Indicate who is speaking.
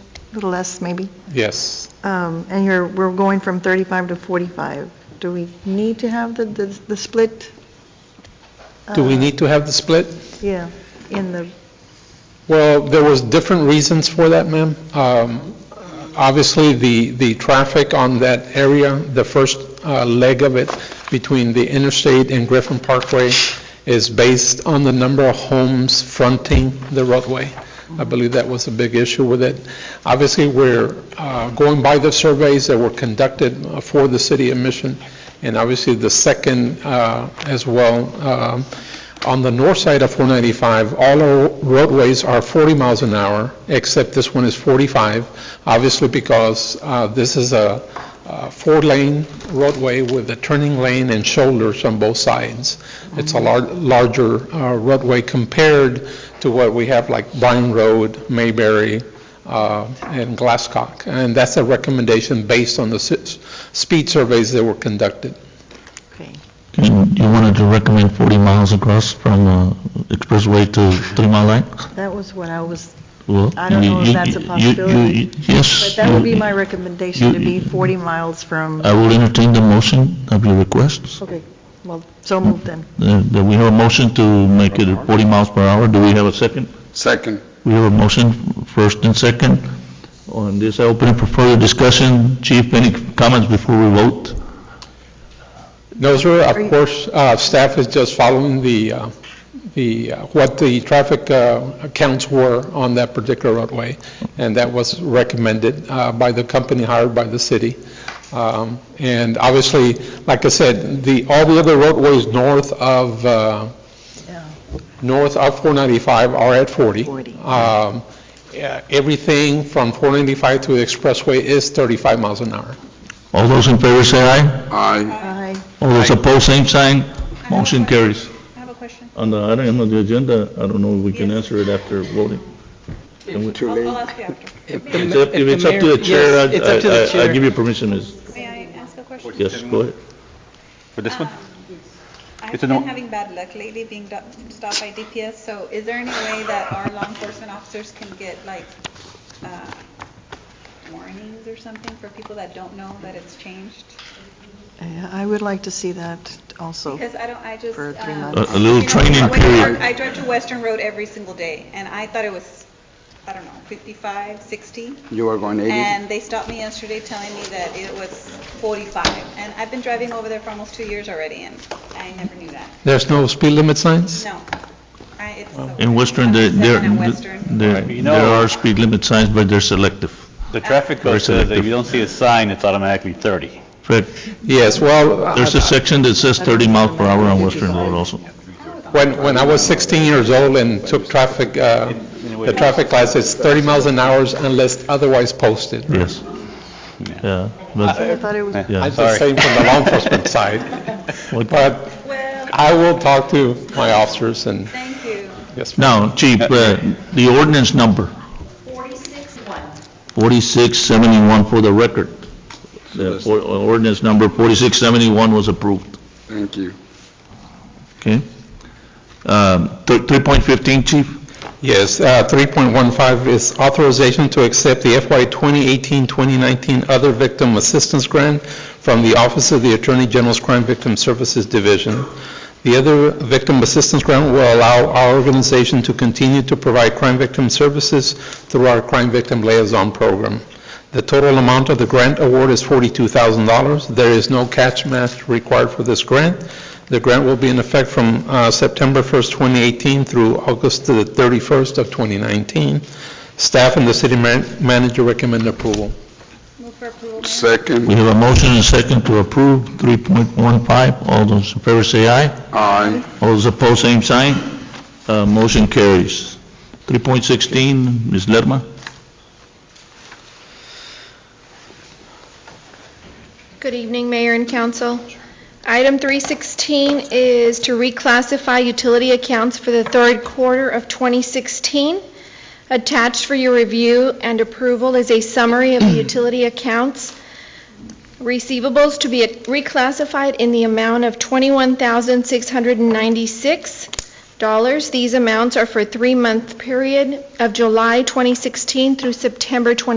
Speaker 1: a little less maybe.
Speaker 2: Yes.
Speaker 1: Um, And you're, we're going from 35 to 45. Do we need to have the, the the split?
Speaker 2: Do we
Speaker 1: Uh,
Speaker 2: need to have the split?
Speaker 1: Yeah, in the,
Speaker 2: Well, there was different reasons for that, ma'am. Um, Obviously, the, the traffic on that area, the first uh, leg of it between the interstate and Griffin Parkway is based on the number of homes fronting the roadway. I believe that was a big issue with it. Obviously, we're uh, going by the surveys that were conducted uh, for the city of Mission, and obviously the second uh, as well, um, on the north side of 495, all our roadways are 40 miles an hour, except this one is 45, obviously because uh, this is a uh, four-lane roadway with a turning lane and shoulders on both sides. It's a lar- larger uh, roadway compared to what we have like Bryan Road, Mayberry, uh, and Glasscock. And that's a recommendation based on the s- speed surveys that were conducted.
Speaker 1: okay.
Speaker 3: You you wanted to recommend 40 miles across from uh, Expressway to Three Mile Line?
Speaker 1: That was what I was,
Speaker 3: Well,
Speaker 1: I don't
Speaker 3: you-
Speaker 1: know if
Speaker 3: you-
Speaker 1: that's a
Speaker 3: you- you-
Speaker 1: possibility,
Speaker 3: you- Yes.
Speaker 1: but that would be
Speaker 3: you-
Speaker 1: my recommendation, to be 40 miles from,
Speaker 3: I will entertain the motion of your request.
Speaker 1: okay, well, so moved then.
Speaker 3: Uh, Do we have a motion to make it 40 miles per hour? Do we have a second?
Speaker 4: Second.
Speaker 3: We have a motion, first and second. On this, I open it for further discussion. Chief, any comments before we vote?
Speaker 2: No, sir,
Speaker 1: Are you-
Speaker 2: of course, uh, staff is just following the, uh, the, uh, what the traffic uh, counts were on that particular roadway, and that was recommended uh, by the company hired by the city. Um, And obviously, like I said, the, all the other roadways north of, uh,
Speaker 1: Yeah.
Speaker 2: north of 495 are at 40.
Speaker 1: 40.
Speaker 2: Um, yeah, Everything from 495 to the expressway is 35 miles an hour.
Speaker 3: All those in favor say aye.
Speaker 4: Aye.
Speaker 1: Aye.
Speaker 3: All those opposed, same sign. Motion carries.
Speaker 5: I have a question.
Speaker 3: On the item of the agenda, I don't know if we can answer it after voting.
Speaker 4: Too
Speaker 5: I'll
Speaker 4: late.
Speaker 5: ask you after.
Speaker 3: It's up- If it's up to the chair, I- I- I I give you permission, Ms.
Speaker 5: May I ask a question?
Speaker 3: Yes, go ahead.
Speaker 6: For this one?
Speaker 5: I've
Speaker 6: It's a
Speaker 5: been
Speaker 6: no-
Speaker 5: having bad luck lately being do- stopped by DPS, so is there any way that our law enforcement officers can get like uh, warnings or something for people that don't know that it's changed?
Speaker 1: Yeah, I would like to see that also.
Speaker 5: Because I don't, I just.
Speaker 1: For three
Speaker 5: um,
Speaker 1: months.
Speaker 3: A- a little
Speaker 5: you know,
Speaker 3: training
Speaker 5: when I
Speaker 3: period.
Speaker 5: drive- I drive to Western Road every single day, and I thought it was, I don't know, 55, 60?
Speaker 4: You are going 80.
Speaker 5: And they stopped me yesterday telling me that it was 45. And I've been driving over there for almost two years already, and I never knew that.
Speaker 2: There's no speed limit signs?
Speaker 5: No. I- it's so-
Speaker 3: In Western, there,
Speaker 5: I'm just saying
Speaker 3: there,
Speaker 5: in Western.
Speaker 3: there
Speaker 6: You
Speaker 3: there
Speaker 6: know-
Speaker 3: are speed limit signs, but they're selective.
Speaker 6: The traffic
Speaker 3: Very
Speaker 6: code says that if
Speaker 3: selective.
Speaker 6: you don't see a sign, it's automatically 30.
Speaker 3: Fred,
Speaker 2: Yes, well, I-
Speaker 3: there's a section that says 30 miles per hour on Western Road also.
Speaker 2: When, when I was 16 years old and took traffic, uh, the traffic class, it's 30 miles an hour unless otherwise posted.
Speaker 3: Yes. Yeah, but,
Speaker 1: I thought it was,
Speaker 3: yeah.
Speaker 2: I'm just saying from the law enforcement side,
Speaker 3: What-
Speaker 2: but
Speaker 5: Well,
Speaker 2: I will talk to my officers and,
Speaker 5: thank you.
Speaker 2: yes, ma'am.
Speaker 3: Now, Chief, uh, the ordinance number? 4671 for the record. The or- Ordinance number 4671 was approved,
Speaker 4: Thank you.
Speaker 3: okay? Um, th- 3.15, Chief?
Speaker 2: Yes, uh, 3.15 is authorization to accept the FY 2018-2019 Other Victim Assistance Grant from the Office of the Attorney General's Crime Victim Services Division. The Other Victim Assistance Grant will allow our organization to continue to provide crime victim services through our Crime Victim Liaison Program. The total amount of the grant award is $42,000. There is no catch match required for this grant. The grant will be in effect from uh, September 1st, 2018 through August the 31st of 2019. Staff and the city man- manager recommend approval.
Speaker 5: Move for approval,
Speaker 3: We
Speaker 5: Mayor.
Speaker 4: Second.
Speaker 3: have a motion and a second to approve 3.15. All those in favor say aye.
Speaker 4: Aye.
Speaker 3: All those opposed, same sign. Uh, Motion carries. 3.16, Ms. Lerma?
Speaker 7: Good evening, Mayor and Council. Item 316 is to reclassify utility accounts for the third quarter of 2016. Attached for your review and approval is a summary of the utility accounts receivables to be reclassified in the amount of $21,696. These amounts are for three-month period of July 2016 through September 2016.